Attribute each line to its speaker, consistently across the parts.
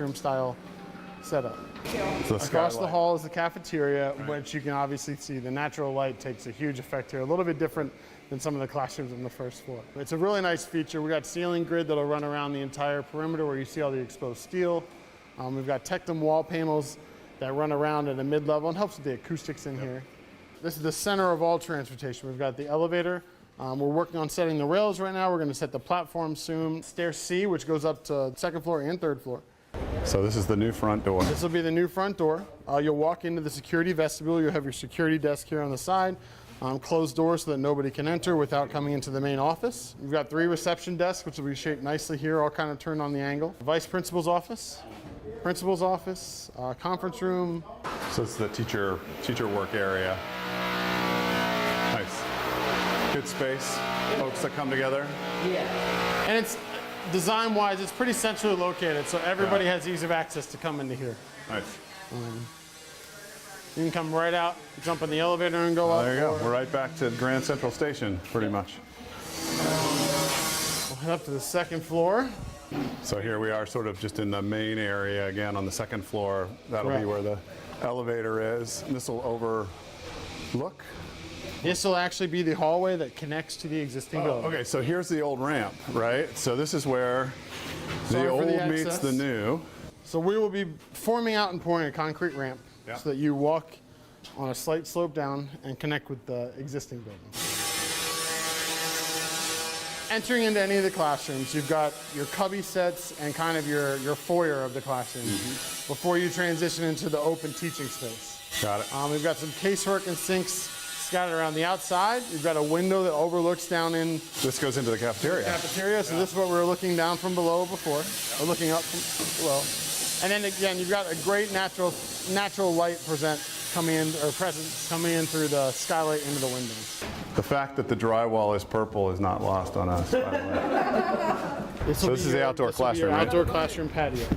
Speaker 1: room style setup.
Speaker 2: The
Speaker 1: Across the
Speaker 2: skylight.
Speaker 1: hall is the cafeteria, which you can obviously see the natural light takes a huge effect here. A little bit different than some of the classrooms on the first floor. It's a really nice feature. We got ceiling grid that'll run around the entire perimeter where you see all the exposed steel. Um, we've got Tectum wall panels that run around at a mid level and helps with the acoustics in here. This is the center of all transportation. We've got the elevator. Um, we're working on setting the rails right now. We're going to set the platform soon. Stair C, which goes up to second floor and third floor.
Speaker 2: So this is the new front door.
Speaker 1: This will be the new front door. Uh, you'll walk into the security vestibule. You'll have your security desk here on the side. Um, closed door so that nobody can enter without coming into the main office. We've got three reception desks, which will be shaped nicely here, all kind of turned on the angle. Vice principal's office, principal's office, uh, conference room.
Speaker 2: So it's the teacher teacher work area. Nice. Good space. Folks that come together.
Speaker 1: And it's design wise, it's pretty centrally located, so everybody
Speaker 2: Yeah.
Speaker 1: has ease of access to come into here.
Speaker 2: Nice.
Speaker 1: You can come right out, jump in the elevator, and go up.
Speaker 2: Oh, There you go. We're right back to Grand Central Station, pretty much.
Speaker 1: We'll head up to the second floor.
Speaker 2: So here we are, sort of just in the main area again on the second floor. That'll be
Speaker 1: Correct.
Speaker 2: where the elevator is. This will overlook.
Speaker 1: This will actually be the hallway that connects to the existing building.
Speaker 2: Oh, Okay, so here's the old ramp, right? So this is where
Speaker 1: Sorry
Speaker 2: the
Speaker 1: for
Speaker 2: old
Speaker 1: the
Speaker 2: meets
Speaker 1: access.
Speaker 2: the new.
Speaker 1: So we will be forming out and pouring a concrete ramp
Speaker 2: Yeah.
Speaker 1: so that you walk on a slight slope down and connect with the existing building. Entering into any of the classrooms, you've got your cubby sets and kind of your, your foyer of the classroom before you transition into the open teaching space.
Speaker 2: Got it.
Speaker 1: Um, we've got some casework and sinks scattered around the outside. You've got a window that overlooks down in
Speaker 2: This goes into the cafeteria.
Speaker 1: cafeteria. So this is what we were looking down from below before, or looking up from below. And then again, you've got a great natural natural light present coming in or presence coming in through the skylight into the windows.
Speaker 2: The fact that the drywall is purple is not lost on us. By the
Speaker 1: This, will
Speaker 2: this
Speaker 1: be
Speaker 2: is the outdoor
Speaker 1: this will be your
Speaker 2: classroom, right?
Speaker 1: Outdoor classroom patio.
Speaker 2: way.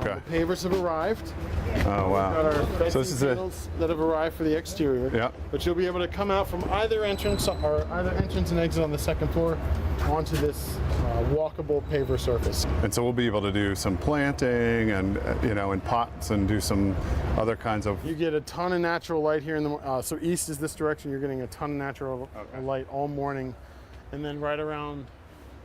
Speaker 2: Okay.
Speaker 1: Pavers have arrived.
Speaker 2: Oh
Speaker 1: Got our
Speaker 2: wow.
Speaker 1: fencing
Speaker 2: So this is a
Speaker 1: panels that have arrived for the exterior.
Speaker 2: Yeah.
Speaker 1: But you'll be able to come out from either entrance or either entrance and exit on the second floor onto this uh, walkable paver surface.
Speaker 2: and so we'll be able to do some planting and uh, you know in pots and do some other kinds of
Speaker 1: You get a ton of natural light here in the mor- uh, so east is this direction. You're getting a ton of natural
Speaker 2: Okay.
Speaker 1: light all morning, and then right around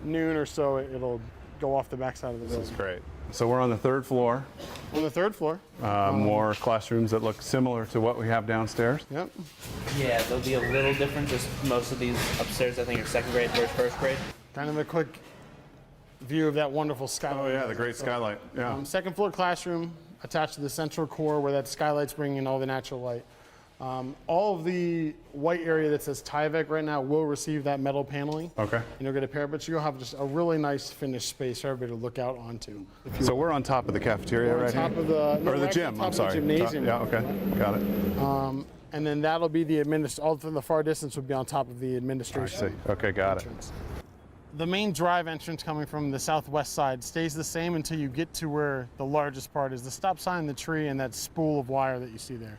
Speaker 1: noon or so, it, it'll go off the backside of the building.
Speaker 2: great. So we're on the third floor.
Speaker 1: On the third floor.
Speaker 2: Uh,
Speaker 1: Um,
Speaker 2: more classrooms that look similar to what we have downstairs.
Speaker 1: Yep.
Speaker 3: Yeah, there'll be a little difference. Just most of these upstairs, I think, are second grade versus first grade.
Speaker 1: Kind of a quick view of that wonderful skylight.
Speaker 2: Oh yeah, the great skylight. Yeah.
Speaker 1: Um, second floor classroom attached to the central core where that skylight's bringing in all the natural light. Um, all of the white area that says Tyvek right now will receive that metal paneling.
Speaker 2: Okay.
Speaker 1: And you'll get a pair, but you'll have just a really nice finished space for everybody to look out onto.
Speaker 2: So we're on top of the cafeteria
Speaker 1: on
Speaker 2: right
Speaker 1: top
Speaker 2: here.
Speaker 1: of the- no,
Speaker 2: or
Speaker 1: we're
Speaker 2: the
Speaker 1: actually on
Speaker 2: gym. I'm
Speaker 1: top
Speaker 2: sorry.
Speaker 1: of the gymnasium.
Speaker 2: Yeah. Okay. Got it.
Speaker 1: And then that'll be the administ, all from the far distance would be on top of the
Speaker 2: I see.
Speaker 1: administration.
Speaker 2: Okay. Got it.
Speaker 1: entrance. The main drive entrance coming from the southwest side stays the same until you get to where the largest part is the stop sign, the tree, and that spool of wire that you see there.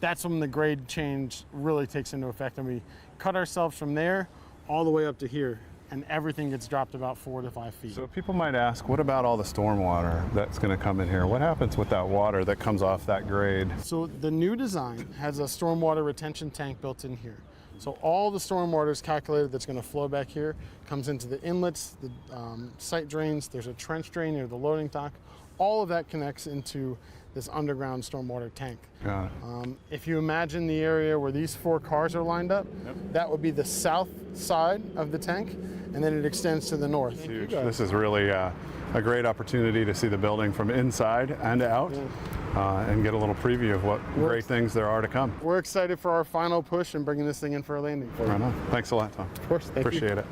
Speaker 1: That's when the grade change really takes into effect, and we cut ourselves from there all the way up to here, and everything gets dropped about four to five feet.
Speaker 2: So people might ask, what about all the storm water that's going to come in here? What happens with that water that comes off that grade?
Speaker 1: So the new design has a stormwater retention tank built in here. So all the stormwater is calculated that's going to flow back here, comes into the inlets, the um, site drains. There's a trench drain near the loading dock. All of that connects into this underground stormwater tank.
Speaker 2: Got it.
Speaker 1: Um, if you imagine the area where these four cars are lined up, that would be the south side of the tank, and then it extends to the north.
Speaker 2: Huge. This is really uh, a great opportunity to see the building from inside and out uh, and get a little preview of what great things there are to come.
Speaker 1: We're excited for our final push and bringing this thing in for a landing. For
Speaker 2: Right on. Thanks a lot, Tom.
Speaker 1: Of course, thank you.
Speaker 2: Appreciate it.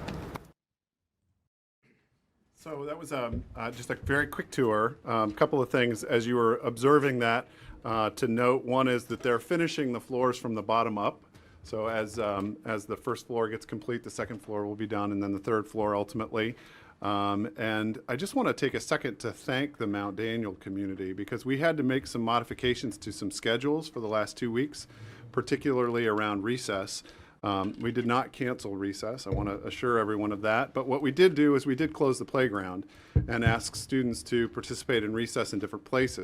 Speaker 2: So that was um, uh, just a very quick tour. A couple of things as you were observing that uh, to note. One is that they're finishing the floors from the bottom up. So as um, as the first floor gets complete, the second floor will be done, and then the third floor ultimately. Um, and I just want to take a second to thank the Mount Daniel community because we had to make some modifications to some schedules for the last two weeks, particularly around recess. Um, we did not cancel recess. I want to assure everyone of that. But what we did do is we did close the playground and ask students to participate in recess in different places.